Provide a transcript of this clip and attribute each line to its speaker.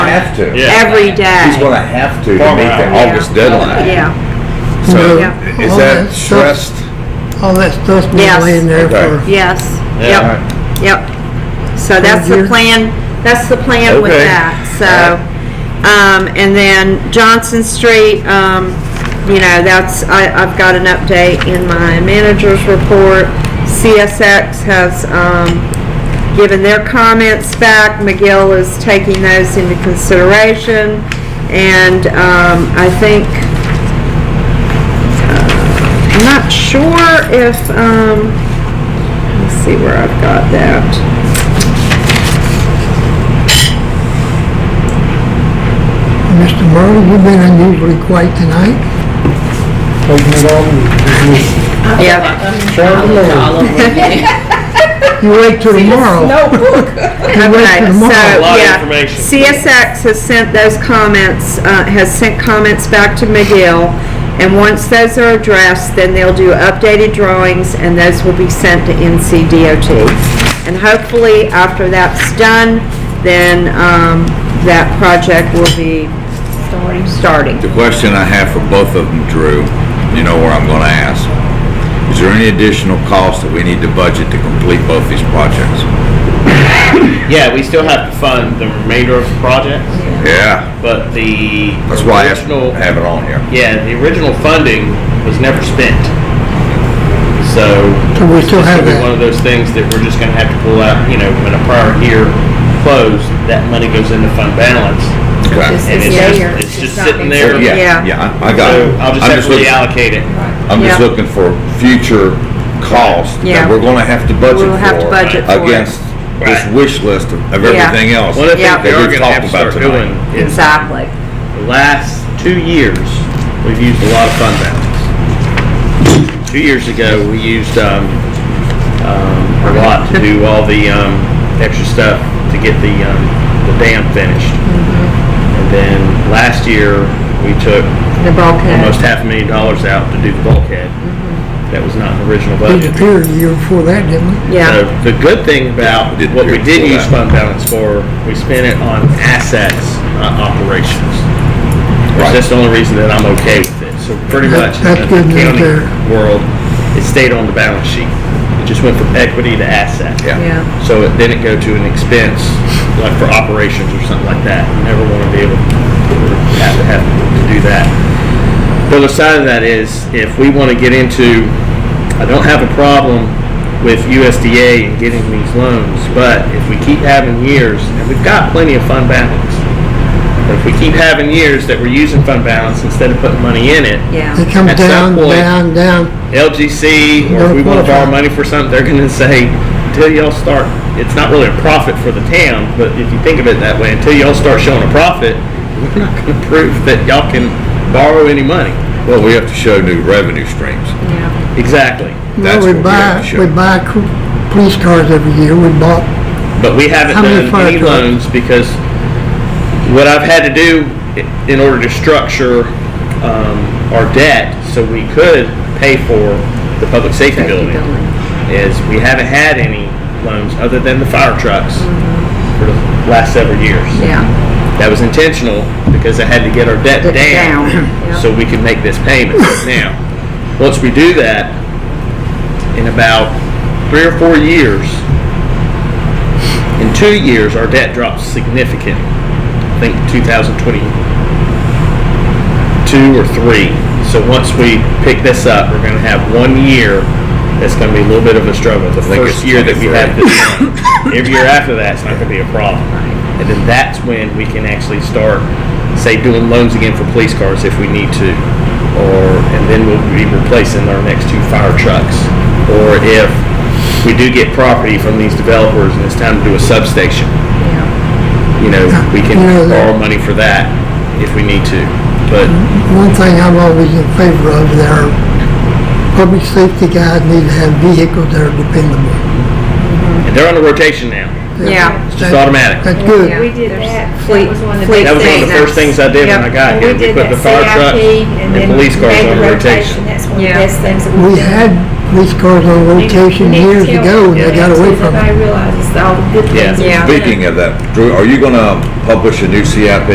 Speaker 1: have to.
Speaker 2: Yeah.
Speaker 3: every day.
Speaker 1: He's gonna have to to meet
Speaker 2: Farmer
Speaker 1: the
Speaker 2: out.
Speaker 1: August deadline.
Speaker 3: Yeah,
Speaker 1: So
Speaker 3: Yeah.
Speaker 1: is
Speaker 4: All
Speaker 1: that
Speaker 4: that stuff-
Speaker 1: trust?
Speaker 4: All that stuff's
Speaker 3: Yes.
Speaker 4: been laying there
Speaker 1: Okay.
Speaker 4: for,
Speaker 3: yes,
Speaker 1: All
Speaker 3: yep,
Speaker 1: right.
Speaker 3: yep. So that's the
Speaker 4: years.
Speaker 3: plan, that's the plan with
Speaker 1: Okay.
Speaker 3: that, so. Um, and then Johnson Street, um, you know, that's, I, I've got an update in my manager's report. CSX has, um, given their comments back. McGill is taking those into consideration. And um, I think, uh, I'm not sure if, um, let's see where I've got that.
Speaker 4: Mr. Merle, you've been unusually quiet tonight.
Speaker 3: Yeah,
Speaker 5: all over again.
Speaker 4: You wait till tomorrow. You wait
Speaker 3: okay, so,
Speaker 4: till tomorrow.
Speaker 2: lot of
Speaker 3: yeah.
Speaker 2: information.
Speaker 3: CSX has sent those comments, uh, has sent comments back to McGill. And once those are addressed, then they'll do updated drawings and those will be sent to NCDOT. And hopefully, after that's done, then, um, that project will be starting.
Speaker 1: The question I have for both of them, Drew, you know where I'm gonna ask. Is there any additional cost that we need to budget to complete both these projects?
Speaker 2: Yeah, we still have to fund the remainder of the project,
Speaker 1: Yeah,
Speaker 2: but the
Speaker 1: that's why I asked-
Speaker 2: original,
Speaker 1: have it on here.
Speaker 2: yeah, the original funding was never spent. So
Speaker 4: So we still
Speaker 2: it's
Speaker 4: have
Speaker 2: gonna be
Speaker 4: that.
Speaker 2: One of those things that we're just gonna have to pull out, you know, when a prior year closed, that money goes into fund balance.
Speaker 1: Okay.
Speaker 2: And
Speaker 5: It's
Speaker 2: it's
Speaker 5: there.
Speaker 2: just, it's just
Speaker 5: It's not being
Speaker 2: sitting there.
Speaker 3: spent.
Speaker 1: Yeah,
Speaker 3: Yeah.
Speaker 1: yeah, I I got
Speaker 2: So
Speaker 1: it.
Speaker 2: I'll just
Speaker 1: I'm
Speaker 2: have to
Speaker 1: looking-
Speaker 2: reallocate it.
Speaker 1: I'm just
Speaker 3: Yeah.
Speaker 1: looking for future costs that
Speaker 3: Yeah.
Speaker 1: we're gonna have to budget for.
Speaker 3: We'll have to budget for it.
Speaker 1: Against this
Speaker 2: Right.
Speaker 1: wish list of of
Speaker 3: Yeah.
Speaker 1: everything else.
Speaker 2: One of the
Speaker 3: Yeah.
Speaker 2: things we
Speaker 1: that
Speaker 2: are
Speaker 1: we've
Speaker 2: gonna have to
Speaker 1: talked about
Speaker 2: start
Speaker 1: tonight.
Speaker 2: doing is
Speaker 3: Exactly.
Speaker 2: the last two years, we've used a lot of fund balance. Two years ago, we used um, um, a lot to do all the um, extra stuff to get the um, the dam finished. And then last year, we took
Speaker 3: The bulkhead.
Speaker 2: almost half a million dollars out to do the bulkhead. That was not in the original
Speaker 4: We
Speaker 2: budget.
Speaker 4: appeared the year before that, didn't
Speaker 2: So
Speaker 4: we?
Speaker 3: Yeah,
Speaker 2: the good thing about
Speaker 1: We didn't
Speaker 2: what
Speaker 1: do
Speaker 2: we
Speaker 1: it
Speaker 2: did
Speaker 1: for
Speaker 2: use
Speaker 1: that.
Speaker 2: fund balance for, we spent it on assets, not operations.
Speaker 1: Right.
Speaker 2: Which That's the only reason that I'm okay with it. So pretty
Speaker 4: That-
Speaker 2: much
Speaker 4: that's
Speaker 2: in the
Speaker 4: good news
Speaker 2: accounting
Speaker 4: there.
Speaker 2: world, it stayed on the balance sheet. It just went from equity to asset.
Speaker 1: Yeah.
Speaker 3: yeah.
Speaker 2: So it didn't go to an expense, like for operations or something like that. You never want to be able to have to have to do that. The other side of that is if we want to get into, I don't have a problem with USDA and getting these loans, but if we keep having years, and we've got plenty of fund balance, but if we keep having years that we're using fund balance instead of putting money in it,
Speaker 3: Yeah,
Speaker 4: It comes
Speaker 2: At some
Speaker 4: down,
Speaker 2: point-
Speaker 4: down, down.
Speaker 2: LGC, or if we want to borrow money for something, they're gonna say, until y'all start, it's not really a profit for the town, but if you think of it that way, until y'all start showing a profit, we're not gonna prove that y'all can borrow any money.
Speaker 1: Well, we have to show new revenue streams.
Speaker 3: yeah,
Speaker 2: Exactly.
Speaker 4: No,
Speaker 1: That's
Speaker 4: we
Speaker 1: what we
Speaker 4: buy,
Speaker 1: have to
Speaker 4: we
Speaker 1: show.
Speaker 4: buy cr- police cars every year. We bought,
Speaker 2: But we haven't
Speaker 4: How many
Speaker 2: done
Speaker 4: fire
Speaker 2: any
Speaker 4: trucks?
Speaker 2: loans because what I've had to do i- in order to structure um, our debt so we could pay for the public safety building is we haven't had any loans other than the fire trucks for the last several years.
Speaker 3: yeah.
Speaker 2: That was intentional because I had to get our debt
Speaker 3: Debt
Speaker 2: down,
Speaker 3: down, yeah.
Speaker 2: so we can make this payment. now, once we do that, in about three or four years, in two years, our debt drops significantly. I think 2022 or three. So once we pick this up, we're going to have one year that's going to be a little bit of a struggle. The
Speaker 1: think
Speaker 2: first
Speaker 1: it's
Speaker 2: year that we
Speaker 1: 23.
Speaker 2: have this done. Every year after that, it's not going to be a problem. And then that's when we can actually start, say, doing loans again for police cars if we need to. Or, and then we'll be replacing our next two fire trucks. Or if we do get property from these developers and it's time to do a substation, you know, we can
Speaker 4: Yeah.
Speaker 2: borrow money for that if we need to. But
Speaker 4: one thing I'm always in favor of, there, public safety guys need to have vehicles that are dependable.
Speaker 2: and they're on the rotation now.
Speaker 3: Yeah.
Speaker 2: It's just automatic.
Speaker 4: That's good.
Speaker 6: We did that.
Speaker 3: Fleet-
Speaker 6: That was one of the
Speaker 3: fleet
Speaker 6: big
Speaker 2: That was one of the
Speaker 6: things.
Speaker 2: first things I did when I
Speaker 3: Yep.
Speaker 2: got here.
Speaker 6: We did
Speaker 2: put
Speaker 6: that
Speaker 2: the fire
Speaker 6: CIP
Speaker 2: trucks
Speaker 6: and
Speaker 2: and
Speaker 6: then
Speaker 2: police cars
Speaker 6: made
Speaker 2: on
Speaker 6: the
Speaker 2: rotation.
Speaker 6: That's one of
Speaker 3: Yeah.
Speaker 6: the best things that
Speaker 4: We
Speaker 6: we did.
Speaker 4: had These cars on rotation years ago, and they got away from it.
Speaker 6: I realize it's all good
Speaker 2: Yeah.
Speaker 6: things.
Speaker 3: Yeah.
Speaker 1: Speaking of that, Drew, are you gonna publish a new CIP